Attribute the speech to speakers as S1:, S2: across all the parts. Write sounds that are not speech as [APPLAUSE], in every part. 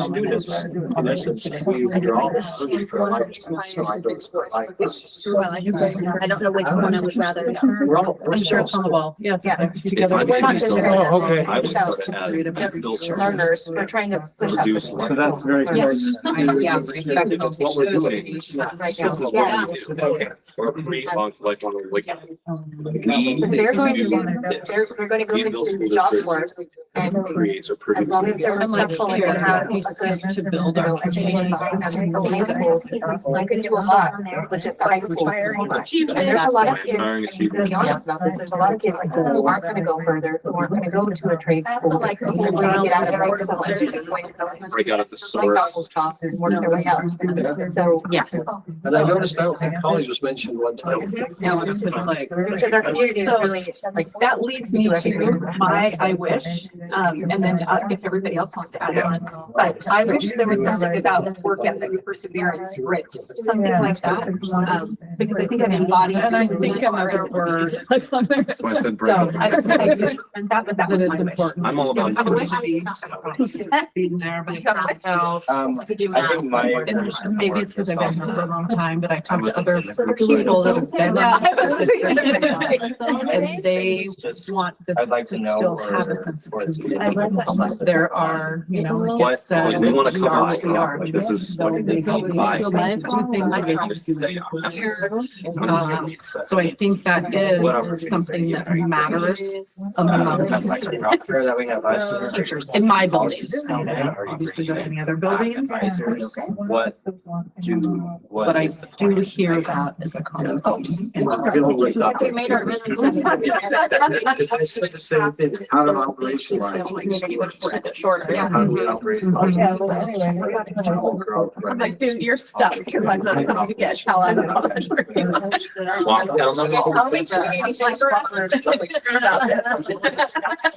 S1: Let's do this. Unless it's- you're all looking for a life, so I go for a life.
S2: Well, I don't- I don't know which one I would rather. [LAUGHS]
S1: We're all. we're
S3: I'm sure it's on the ball. Yeah. it's up there. Together.
S4: If I may be so-
S3: Oh, okay.
S4: I would sort of as
S3: Just
S4: bill service.
S5: learners, we're trying to push up.
S4: Reduce
S5: the-
S4: like.
S6: So that's very.
S5: Yes. Yeah.
S4: That's what we're doing.
S5: Right now.
S4: This is what we do. Or pre, long, lifelong, like.
S5: So They're going to, be- they're, they're gonna go
S4: Yeah,
S5: into
S4: those
S5: the
S4: schools
S5: job
S4: are-
S5: force and
S4: Creates or
S5: As long as
S4: produces.
S5: they're
S3: I'm like,
S5: respectful and
S3: here,
S5: have
S3: we seek to build our community.
S5: I could do a lot with just the high school.
S2: [LAUGHS]
S5: And there's a lot of kids,
S4: Inspiring
S5: I mean, to
S4: achievement.
S5: be honest about this, there's a lot of kids who aren't gonna go further, who aren't gonna go to a trade school. They're gonna get out of high school and they're going to go into
S4: Break out at the
S5: like
S4: source.
S5: awful jobs and work their way up. So.
S2: Yeah.
S1: And I noticed, I don't think college was mentioned one time.
S3: No, it's been like.
S5: Because our community is
S7: So,
S5: really like.
S7: That leads me to my, I wish, um, and then uh, if everybody else wants to add on, but I wish there was something about work ethic, perseverance, grit, something like that. Um, because I think that embodies.
S3: And I think another word.
S2: [LAUGHS]
S4: That's why I said. break
S7: So
S4: out.
S7: I just, I, and that, but that
S3: That
S7: was
S3: is
S7: my wish.
S3: important.
S4: I'm all about.
S7: I wish I
S4: diversity.
S7: did not.
S3: Being there, but it's not help.
S6: Um, I think my.
S3: And maybe it's because I've been here for a long time, but I talked to other people that have been.
S7: Yeah, I [LAUGHS] was
S3: in- And
S5: [LAUGHS] And
S3: they want this
S6: I'd like to know
S3: still
S6: where-
S3: have a sense of
S6: where it's-
S3: community. Unless there are, you know.
S4: What,
S3: so
S4: they want to
S3: we
S4: come
S3: are
S4: by,
S3: what we are.
S4: like this is
S3: So
S4: what they
S3: maybe
S4: come
S3: we
S4: by.
S3: feel like the things that we have to do with the
S4: It's
S3: culture.
S4: one of those things that-
S3: So I think that
S4: Whatever.
S3: is something that matters
S6: That's like
S3: amongst
S6: the rock fair that we have
S3: [LAUGHS]
S6: last year.
S3: teachers Um, in my building. Obviously,
S6: Obviously,
S3: there are many other buildings,
S6: Advisors, what do,
S3: but
S6: what
S3: I
S6: is the
S3: do
S6: plan?
S3: hear that as a common.
S1: Oh,
S3: theme. And that's-
S1: We
S5: We made our really.
S1: [LAUGHS] Because I said the same thing, how to operationalize these.
S7: Shorter, yeah.
S1: How do we operate?
S7: Yeah, well, anyway, we're not gonna- I'm like, dude, you're stuck. You're like, not supposed to get shell out
S2: [LAUGHS]
S7: of college.
S4: Walk down the hall.
S5: I'll make sure you like.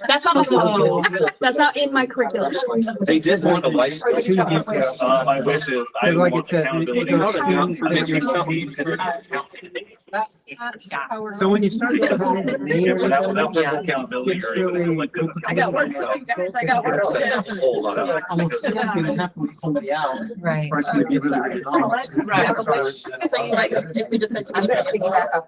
S2: That's not, that's not in my curriculum.
S4: They did want a license.
S8: Uh, my wish is I
S6: Like I
S8: want
S6: said,
S8: accountability.
S6: you know, it's not-
S8: If you tell me to-
S6: So when you started.
S8: Yeah, without, without the accountability or even like the-
S7: I got work to do. guys. I
S2: oh,
S7: got work to
S4: That's a whole lot of-
S6: Almost nothing happened with somebody else.
S3: Right.
S6: Personally, it was a great
S2: Oh,
S6: knowledge.
S7: Right.
S2: So you like, if we just said.
S5: I'm gonna pick it back up.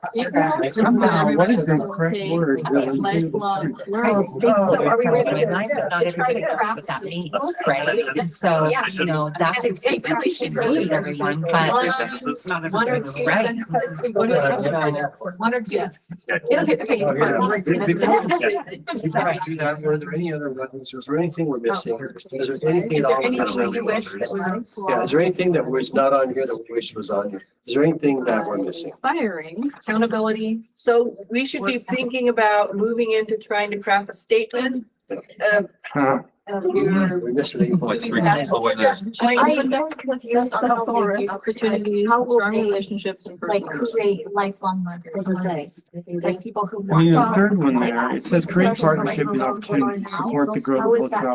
S6: Somehow, What is the correct word? Oh,
S2: Lifelong
S3: So
S2: learning.
S3: so
S7: are we ready
S3: to-
S7: to
S3: Not
S7: try
S3: everybody
S7: to
S3: knows
S7: craft
S3: what that means,
S7: this?
S3: right? So,
S7: Yeah.
S3: you know, that
S5: And
S3: is
S5: it really should
S3: really
S5: be
S3: everyone,
S5: one-
S3: but
S8: Sentences.
S3: not
S5: One or
S3: everyone
S5: two.
S3: is right.
S5: One or two. One or two. It'll hit the page.
S1: Oh, yeah.
S5: Once
S1: Big, big difference.
S5: it's-
S1: You can do that. Were there any other weapons? Was there anything we're missing? Is there anything?
S5: Oh. Is
S1: at
S5: there
S1: all that
S5: anything
S1: we're
S5: you wish that we?
S1: Yeah, is there anything that was not on here that we wish was on here? Is there anything that we're missing?
S7: Inspiring.
S5: Accountability.
S9: So we should be thinking about moving into trying to craft a statement of,
S6: Uh,
S9: of your.
S1: We missed anything?
S4: Like
S7: [LAUGHS]
S4: three minutes away there.
S7: I-
S9: Like,
S7: That's the
S2: Opportunities,
S7: How will
S2: strong
S7: they,
S2: relationships and
S7: Like
S2: personal.
S7: create lifelong learners. Like people who
S6: I
S7: want.
S6: mean, the
S7: to
S6: third one there, it says create
S7: Social
S6: partnership and opportunities to support the growth of culture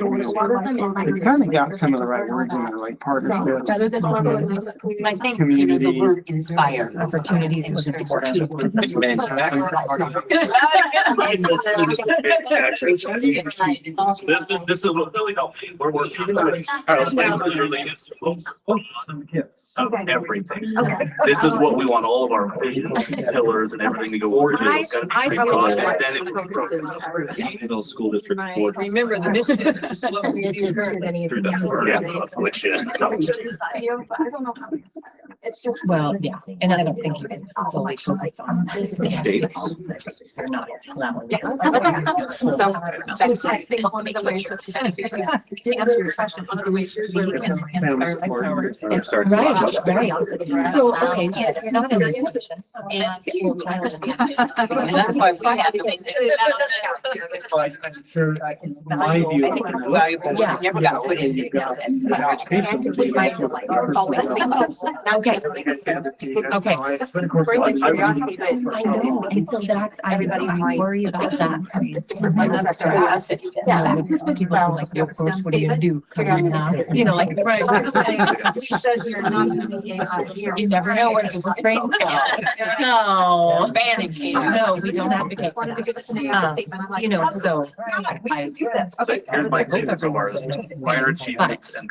S6: of a stronger community. They kind of got some of the right words in there, like partnerships.
S7: Rather than.
S6: um,
S3: I think,
S6: you know, the word
S3: inspire, opportunities was the key word.
S4: Man,
S8: It's actually- This, this is what really helped me. We're working. on this. Our life really is of Everything. This is what we want all of our vision pillars and everything to go forward. to. It's gotta
S2: I-
S8: be
S2: I
S8: thought
S2: really
S8: and then it was programmed.
S4: Middle school district. forward.
S2: Remember the [LAUGHS] mission.
S4: Through that word.
S7: Yeah.
S4: Which is.
S7: It's just.
S3: Well, yes, and I don't think you can solely focus on this.
S4: States.
S3: You're not allowing.
S7: Yeah. So, that's like saying one of the ways you're- To answer your question, one of the ways you're leading and and inspire lifestyles
S4: Or
S7: is-
S4: start to-
S3: Right, right. So, okay, yeah, not only-
S7: And
S3: That's why we
S7: have to make.
S6: My view.
S3: Yeah.
S1: never got put in any of this at all.
S7: And to keep my, like, always thinking.
S3: Okay, Okay.
S7: Bring the
S6: I- I-
S7: curiosity,
S3: I
S7: but.
S3: know, and so that's, I
S7: Everybody's
S3: I
S7: mind.
S3: worry about that.
S7: Yeah.
S3: Yeah.
S4: always been people who like, of course, what are you gonna do? Come in, uh, You know, like, right. You never know where the brain [LAUGHS] goes. No. Vanity. No, we don't have to get,
S5: Wanted to give us an
S4: Uh,
S5: AI statement. I'm like,
S4: you know, so.
S5: God, we can do this.
S8: So here's my statement so far, is why aren't you
S4: But-